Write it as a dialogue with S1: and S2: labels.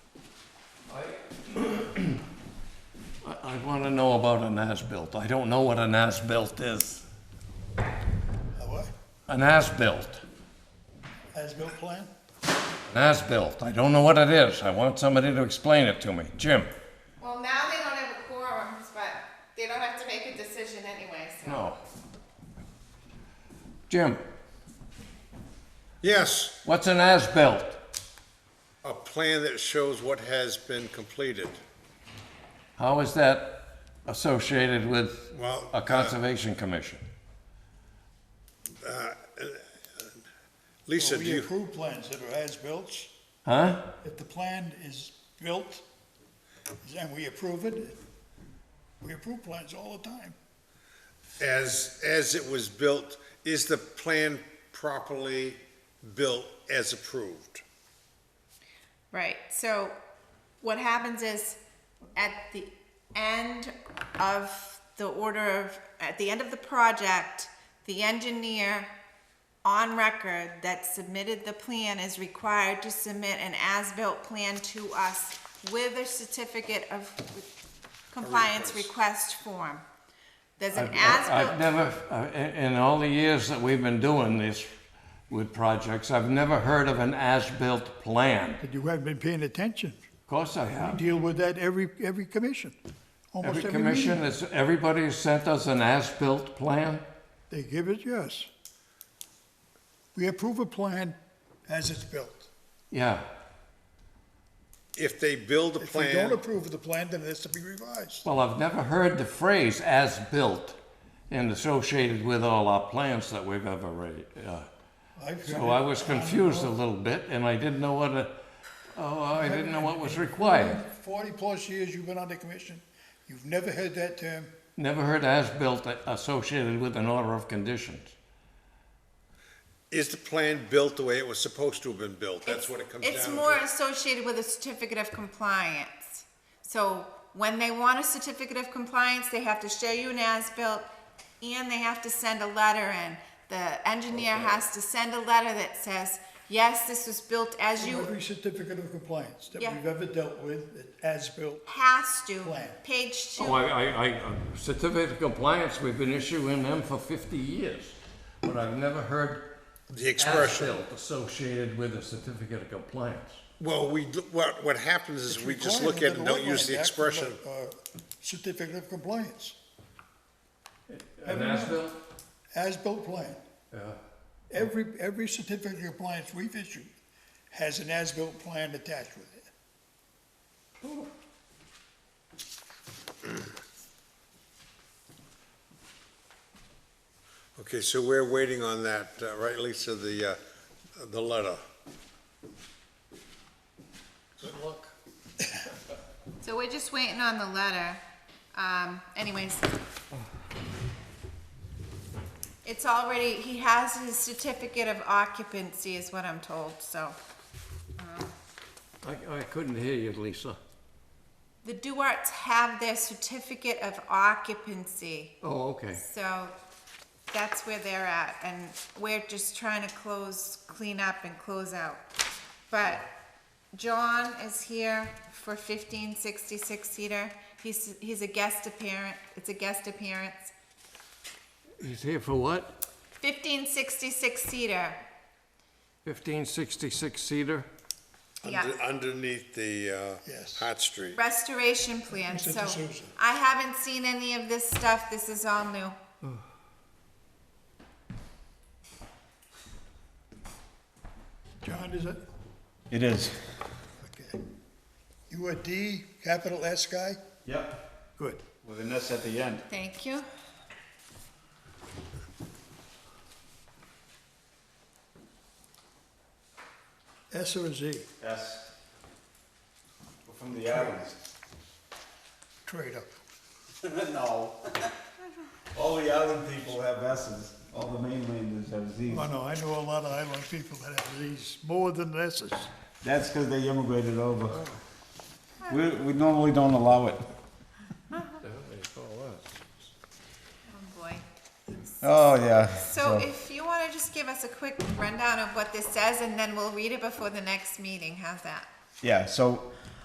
S1: I want to know about an as-built. I don't know what an as-built is.
S2: A what?
S1: An as-built,
S2: As-built plan?
S1: an as-built. I don't know what it is. I want somebody to explain it to me. Jim?
S3: Well, now they don't have a quorum, but they don't have to make a decision anyway, so.
S1: No. Jim,
S4: Yes,
S1: what's an as-built?
S4: a plan that shows what has been completed.
S1: How is that associated with
S4: Well,
S1: a
S4: uh,
S1: conservation commission?
S4: Lisa, do
S2: We
S4: you,
S2: approve plans that are as-built.
S1: Huh?
S2: If the plan is built, and we approve it, we approve plans all the time.
S4: as, as it was built, is the plan properly built as approved?
S3: Right, so what happens is at the end of the order of, at the end of the project, the engineer on record that submitted the plan is required to submit an as-built plan to us with a certificate of compliance request form. There's an
S1: I've
S3: as-built,
S1: never, uh, in in all the years that we've been doing this with projects, I've never heard of an as-built plan.
S2: But you haven't been paying attention.
S1: Of course I
S2: We
S1: have.
S2: deal with that every, every commission, almost
S1: Every
S2: every
S1: commission,
S2: meeting.
S1: has everybody has sent us an as-built plan?
S2: They give it, yes. We approve a plan as it's built.
S1: Yeah,
S4: If they build a
S2: If we don't
S4: plan,
S2: approve of the plan, then it has to be revised.
S1: well, I've never heard the phrase "as-built" and associated with all our plans that we've ever read. uh,
S2: I've
S1: So
S2: done
S1: I
S2: it
S1: was
S2: on
S1: confused a little bit, and I didn't know what, a- oh, I didn't know what was required.
S2: Forty-plus years you've been on the commission, you've never heard that term.
S1: Never heard "as-built" associated with an order of conditions.
S4: is the plan built the way it was supposed to have been built? That's what it comes down to.
S3: it's more associated with a certificate of compliance. So when they want a certificate of compliance, they have to show you an as-built and they have to send a letter in. The engineer has to send a letter that says, yes, this was built as you
S2: Every certificate of compliance that
S3: Yeah.
S2: we've ever dealt with, it as-built,
S3: has to,
S2: Plan.
S3: page
S1: Oh,
S3: two.
S1: I, I, I, certificate of compliance, we've been issuing them for fifty years, but I've never heard
S4: The expression.
S1: as-built associated with a certificate of compliance.
S4: Well, we, what, what happens is we just look at it and don't use the expression.
S2: uh, Certificate of compliance,
S1: An as-built?
S2: as-built plan.
S1: Yeah.
S2: Every, every certificate of compliance we've issued has an as-built plan attached with it.
S4: Okay, so we're waiting on that, uh, right, Lisa, the, uh, the letter? Good luck.
S3: So we're just waiting on the letter. Um, anyways. It's already, he has his certificate of occupancy is what I'm told, so.
S1: I, I couldn't hear you, Lisa.
S3: The Duarts have their certificate of occupancy,
S1: Oh, okay.
S3: so that's where they're at, and we're just trying to close, clean up and close out. But John is here for fifteen sixty-six Cedar, he's, he's a guest appearance, it's a guest appearance.
S1: He's here for what?
S3: Fifteen sixty-six Cedar,
S1: Fifteen sixty-six Cedar?
S3: Yeah.
S4: Under- Underneath the, uh,
S2: Yes.
S4: Hot Street.
S3: restoration plan,
S2: Mr.
S3: so
S2: D'Souza.
S3: I haven't seen any of this stuff, this is all new.
S2: John, is it?
S5: It is.
S2: Okay. You a D, capital S guy?
S5: Yep.
S2: Good.
S5: With an S at the end.
S3: Thank you.
S2: S or a Z?
S5: S. We're from the islands.
S2: Trader.
S5: no. All the island people have S's. All the mainlanders have Z's.
S2: Oh, no, I know a lot of island people that have these, more than S's.
S5: That's because they immigrated over. We, we normally don't allow it.
S3: Oh, boy.
S5: Oh, yeah.
S3: So if you want to just give us a quick rundown of what this says, and then we'll read it before the next meeting, how's that?
S5: Yeah, so